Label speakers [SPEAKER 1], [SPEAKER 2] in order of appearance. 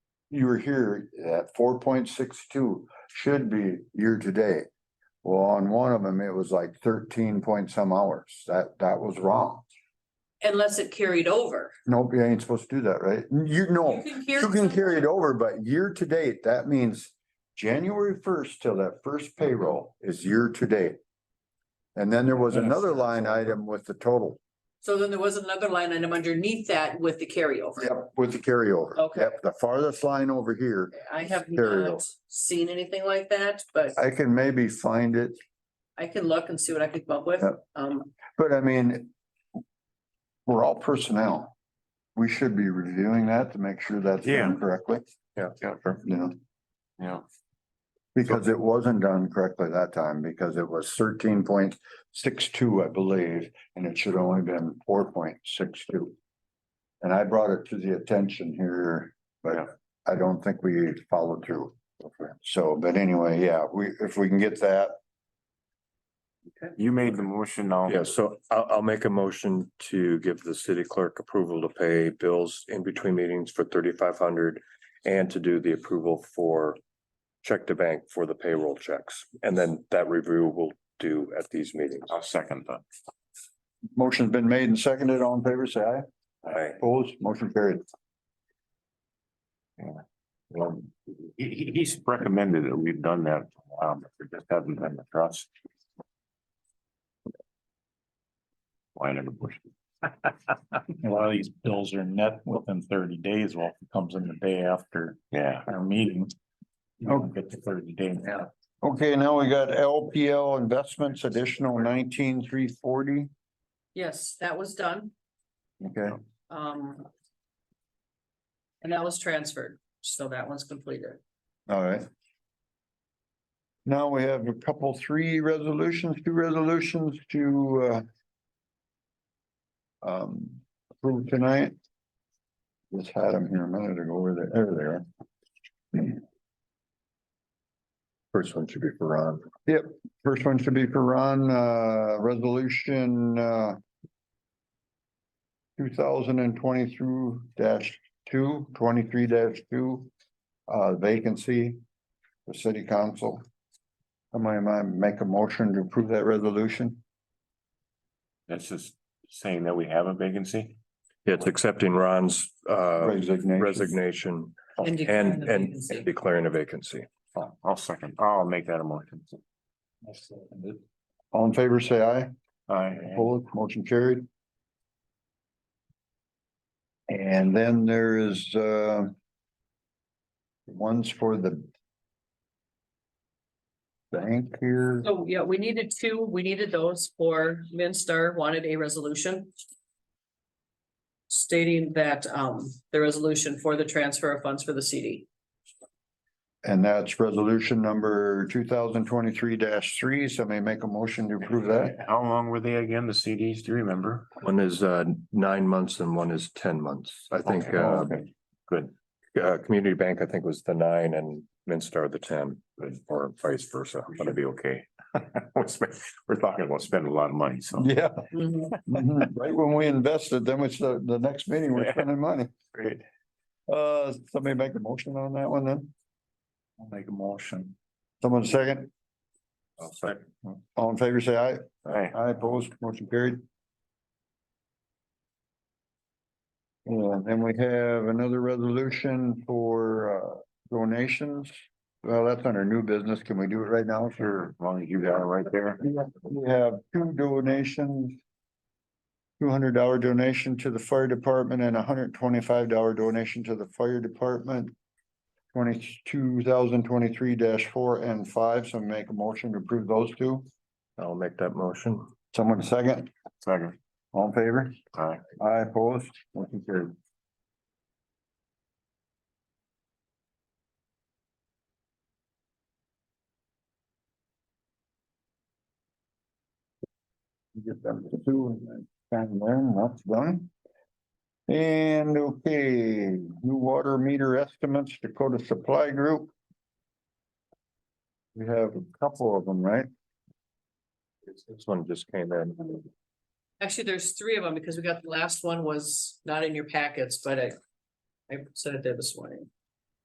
[SPEAKER 1] you were here at four point six two should be year to date. Well, on one of them, it was like thirteen point some hours. That, that was wrong.
[SPEAKER 2] unless it carried over.
[SPEAKER 1] Nope, you ain't supposed to do that, right? You know, Oh, you can carry it
[SPEAKER 2] some-
[SPEAKER 1] over, but year to date, that means January first till that first payroll is year to date. And then there was
[SPEAKER 3] Yes.
[SPEAKER 1] another line item with the total.
[SPEAKER 2] So then there was another line item underneath that with the carryover.
[SPEAKER 1] Yep, with the carryover.
[SPEAKER 2] Okay.
[SPEAKER 1] Yep, The farthest line over here,
[SPEAKER 2] I have not
[SPEAKER 1] Carryover.
[SPEAKER 2] seen anything like that, but
[SPEAKER 1] I can maybe find it,
[SPEAKER 2] I can look and see what I can come up with.
[SPEAKER 1] Yep.
[SPEAKER 2] Um,
[SPEAKER 1] but I mean. We're all personnel. We should be reviewing that to make sure that's
[SPEAKER 3] Yeah.
[SPEAKER 1] done correctly,
[SPEAKER 3] Yeah, yeah, sure,
[SPEAKER 1] you know,
[SPEAKER 3] yeah.
[SPEAKER 1] because it wasn't done correctly that time, because it was thirteen point six two, I believe. And it should have only been four point six two. And I brought it to the attention here,
[SPEAKER 3] Yeah.
[SPEAKER 1] but I don't think we followed through. So, but anyway, yeah, we, if we can get that,
[SPEAKER 3] You made the motion um, now.
[SPEAKER 4] Yeah, so I'll, I'll make a motion to give the city clerk approval to pay bills in between meetings for thirty-five hundred and to do the approval for check to bank for the payroll checks. And then that review we'll do at these meetings.
[SPEAKER 3] I'll second that.
[SPEAKER 1] Motion's been made and seconded. All in favor, say aye.
[SPEAKER 4] Aye.
[SPEAKER 1] Opposed, motion carried.
[SPEAKER 3] Well, um, he, he- he's recommended that we've done that, um, it just hasn't been across. Line in the bush.
[SPEAKER 5] A lot of these bills are net within thirty days, well, if it comes in the day after
[SPEAKER 3] Yeah, Oh.
[SPEAKER 5] our meeting. You don't get the thirty day now.
[SPEAKER 1] Okay, now we got LPL Investments additional nineteen three forty.
[SPEAKER 2] yes, that was done.
[SPEAKER 1] Okay,
[SPEAKER 2] Um. And that was transferred, so that one's completed.
[SPEAKER 1] all right. Now we have a couple, three resolutions, two resolutions to uh. Um, approve tonight. Just had them here a minute ago, where they, there they are.
[SPEAKER 4] First one should be for Ron.
[SPEAKER 1] First one should be for Ron, uh, resolution, uh. Two thousand and twenty through dash two, twenty-three dash two, uh, vacancy for city council. Am I, am I make a motion to approve that resolution?
[SPEAKER 3] that's just saying that we have a vacancy.
[SPEAKER 4] Yeah, It's accepting Ron's uh
[SPEAKER 1] Resignation.
[SPEAKER 4] resignation
[SPEAKER 1] Oh,
[SPEAKER 2] And declaring
[SPEAKER 4] and
[SPEAKER 2] the
[SPEAKER 4] and
[SPEAKER 2] vacancy.
[SPEAKER 4] declaring a vacancy.
[SPEAKER 3] I'll- Oh, I'll second, I'll make that a motion.
[SPEAKER 1] All in favor, say aye.
[SPEAKER 3] Aye.
[SPEAKER 1] Opposed, motion carried. And then there is, uh. Ones for the. Bank here.
[SPEAKER 2] So, yeah, we needed two, we needed those for Minstar wanted a resolution. Stating that um the resolution for the transfer of funds for the CD.
[SPEAKER 1] And that's resolution number two thousand twenty-three three. Somebody make a motion to approve that.
[SPEAKER 3] How long were they again, the CDs, do you remember?
[SPEAKER 4] One is uh nine months and one is ten months. I think
[SPEAKER 3] Okay,
[SPEAKER 4] uh,
[SPEAKER 3] okay, Good,
[SPEAKER 4] uh, Community Bank, I think was the nine and Minstar the ten or vice versa.
[SPEAKER 3] I'm gonna be okay. We're spend- we're talking about spending a lot of money, so.
[SPEAKER 1] Yeah.
[SPEAKER 5] Mm-hmm.
[SPEAKER 1] Mhm. Right when we invested, then it's the, the next meeting, we're spending money.
[SPEAKER 3] Great.
[SPEAKER 1] Uh, somebody make a motion on that one then?
[SPEAKER 5] I'll make a motion.
[SPEAKER 1] Someone second?
[SPEAKER 3] I'll second.
[SPEAKER 1] All in favor, say aye.
[SPEAKER 3] Aye.
[SPEAKER 1] I opposed, motion carried. And Uh, then we have another resolution for uh, donations. Well, that's under new business. Can we do it right now? Sure.
[SPEAKER 3] As long as you got it right there.
[SPEAKER 1] We have two donations. Two hundred dollar donation to the fire department and a hundred twenty-five dollar donation to the fire department. Twenty-two thousand twenty-three four and five, so make a motion to approve those two.
[SPEAKER 4] I'll make that motion.
[SPEAKER 1] Someone second,
[SPEAKER 3] Second.
[SPEAKER 1] all in favor?
[SPEAKER 3] Aye.
[SPEAKER 1] I opposed, motion carried. Get them to two and then sign them, that's done. And okay, new water meter estimates Dakota Supply Group. We have a couple of them, right?
[SPEAKER 4] This one just came in.
[SPEAKER 2] Actually, there's three of them because we got the last one was not in your packets, but I. I said it there this morning.